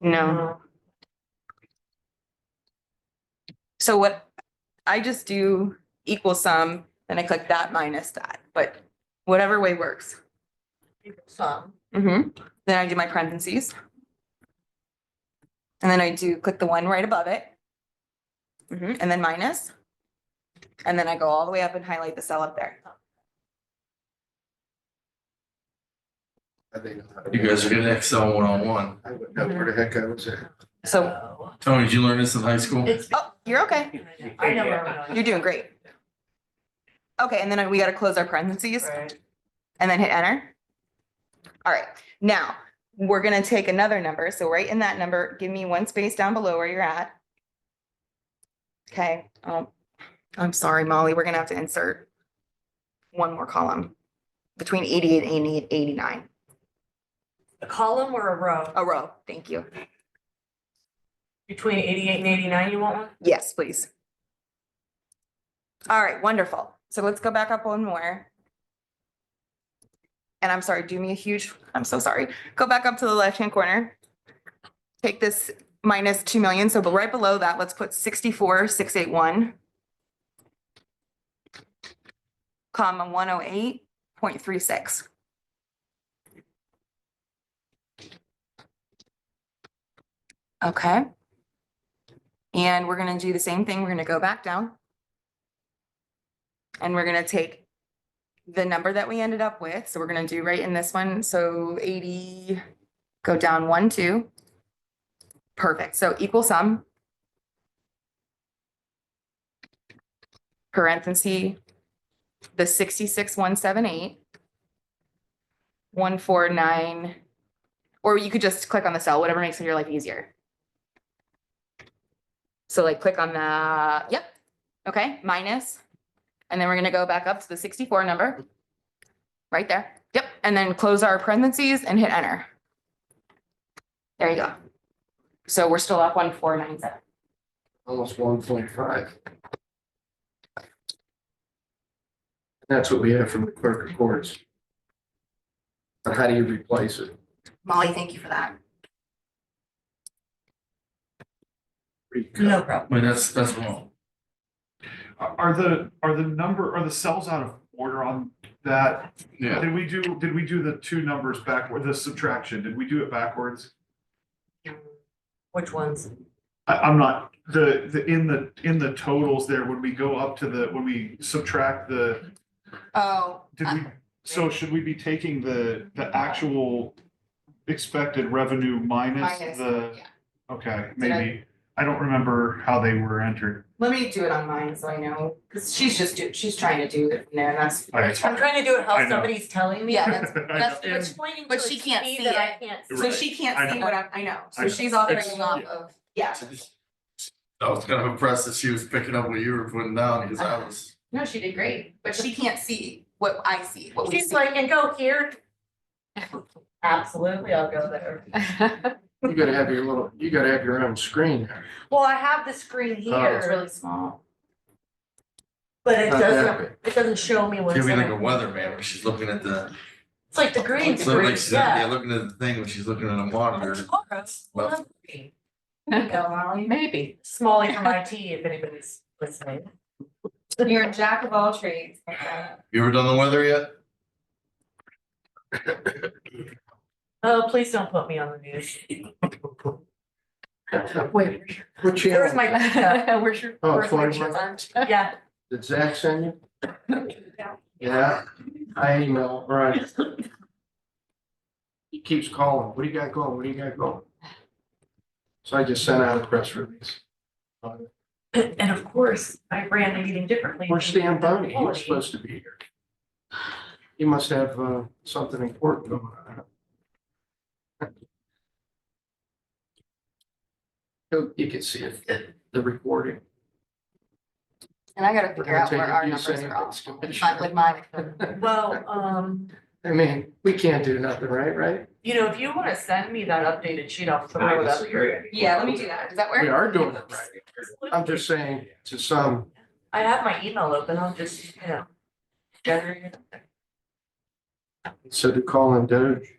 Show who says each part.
Speaker 1: No. So what, I just do equal sum, then I click that minus that, but whatever way works.
Speaker 2: Some.
Speaker 1: Mhm. Then I do my parentheses. And then I do click the one right above it. Mhm. And then minus. And then I go all the way up and highlight the cell up there.
Speaker 3: I think I know how to
Speaker 4: You
Speaker 3: do
Speaker 4: guys are
Speaker 3: it.
Speaker 4: good at Excel one on one.
Speaker 3: I wouldn't know where the heck I was at.
Speaker 1: So,
Speaker 4: Tony, did you learn this in high school?
Speaker 2: It's.
Speaker 1: oh, you're okay.
Speaker 2: I know where I'm going.
Speaker 1: You're doing great. Okay, and then we gotta close our parentheses.
Speaker 2: Right.
Speaker 1: and then hit enter. All right, now we're gonna take another number. So right in that number, give me one space down below where you're at. Okay, um, I'm sorry, Molly, we're gonna have to insert one more column between eighty-eight and 80 eighty-nine,
Speaker 2: A column or a row?
Speaker 1: a row. Thank you.
Speaker 2: Between eighty-eight and eighty-nine, you want one?
Speaker 1: Yes, please. All right, wonderful. So let's go back up one more. And I'm sorry, do me a huge, I'm so sorry. Go back up to the left-hand corner. Take this minus two million, so right below that, let's put sixty-four, six, eight, one. Comma, one oh eight, point three six. Okay. And we're gonna do the same thing. We're gonna go back down. And we're gonna take the number that we ended up with. So we're gonna do right in this one. So eighty, go down one, two. Perfect. So equal sum. Parenthesis, the sixty-six, one, seven, eight. One, four, nine, or you could just click on the cell, whatever makes your life easier. So like click on the, yep, okay, minus. And then we're gonna go back up to the sixty-four number. Right there, yep, and then close our parentheses and hit enter. There you go. So we're still up one four nine seven.
Speaker 3: Almost one point five. That's what we have from the clerk of courts. But how do you replace it?
Speaker 1: Molly, thank you for that.
Speaker 3: Recut.
Speaker 2: No problem.
Speaker 4: Wait, that's, that's wrong.
Speaker 5: Are are the, are the number, are the cells out of order on that?
Speaker 4: Yeah.
Speaker 5: Did we do, did we do the two numbers backward, the subtraction, did we do it backwards?
Speaker 2: Which ones?
Speaker 5: I, I'm not, the, the, in the, in the totals there, when we go up to the, when we subtract the,
Speaker 1: Oh.
Speaker 5: did we, so should we be taking the, the actual expected revenue minus the, okay, maybe. I don't remember how they were entered.
Speaker 1: Let me do it on mine so I know, because she's just, do- she's trying to do it from there, and that's.
Speaker 5: All right, it's
Speaker 2: I'm
Speaker 5: fine.
Speaker 2: trying to do it
Speaker 5: I
Speaker 2: how
Speaker 5: know.
Speaker 2: somebody's telling me.
Speaker 1: Yeah, that's-
Speaker 5: I
Speaker 2: That's
Speaker 5: know.
Speaker 2: it's pointing to
Speaker 1: But she
Speaker 2: a
Speaker 1: can't
Speaker 2: key
Speaker 1: see
Speaker 2: that I
Speaker 1: it.
Speaker 2: can't see.
Speaker 1: So she
Speaker 5: I
Speaker 1: can't see
Speaker 5: know.
Speaker 1: what I, I know,
Speaker 5: I
Speaker 1: so
Speaker 5: know.
Speaker 1: she's operating
Speaker 5: It's-
Speaker 1: off of, yeah.
Speaker 4: I was kind of impressed that she was picking up what you were putting down because I was.
Speaker 1: No, she did great, but she can't see what I see, what we
Speaker 2: She's
Speaker 1: see.
Speaker 2: like, and go here. Absolutely, I'll go there.
Speaker 3: You gotta have your little, you gotta have your own screen.
Speaker 2: Well, I have the screen
Speaker 4: Oh.
Speaker 1: It's
Speaker 2: here,
Speaker 1: really small.
Speaker 2: but it
Speaker 3: Not that
Speaker 2: doesn't,
Speaker 3: big.
Speaker 2: it doesn't show me what's
Speaker 4: Give me
Speaker 2: in
Speaker 4: like a
Speaker 2: it.
Speaker 4: weatherman when she's looking at the,
Speaker 2: It's like the green
Speaker 4: it's like
Speaker 2: screen,
Speaker 4: she's, yeah,
Speaker 2: yeah.
Speaker 4: looking at the thing when she's looking at a monitor.
Speaker 2: Tomorrow, we'll have green.
Speaker 1: Go, Molly.
Speaker 6: Maybe.
Speaker 2: Smalley from IT, if anybody's listening.
Speaker 1: You're a jack of all trades.
Speaker 4: You ever done the weather yet?
Speaker 2: Oh, please don't put me on the news.
Speaker 6: Wait,
Speaker 3: What
Speaker 2: There's
Speaker 3: channel?
Speaker 2: my,
Speaker 6: where's your?
Speaker 3: Oh,
Speaker 6: where's my
Speaker 3: 21?
Speaker 6: chance?
Speaker 2: yeah,
Speaker 3: Did Zach send you? Yeah, I email, right. He keeps calling, what do you got going, what do you got going? So I just sent out a press release.
Speaker 2: and of course, I ran the meeting differently.
Speaker 3: Where's Stan Boney? He was supposed to be here. He must have uh, something important going on. You- You can see it, the recording.
Speaker 1: And I gotta figure out where our
Speaker 3: You
Speaker 1: numbers
Speaker 3: said
Speaker 1: are off.
Speaker 3: it's gonna
Speaker 1: With my-
Speaker 3: show.
Speaker 1: with my-
Speaker 2: Well, um,
Speaker 3: I mean, we can't do nothing, right, right?
Speaker 2: you know, if you wanna send me that updated sheet, I'll throw it up here.
Speaker 1: Yeah, let me do that. Does that
Speaker 3: We
Speaker 1: work?
Speaker 3: are doing it right. I'm just saying to some,
Speaker 2: I have my email open, I'll just, you know. generate it.
Speaker 3: so to call in Doge,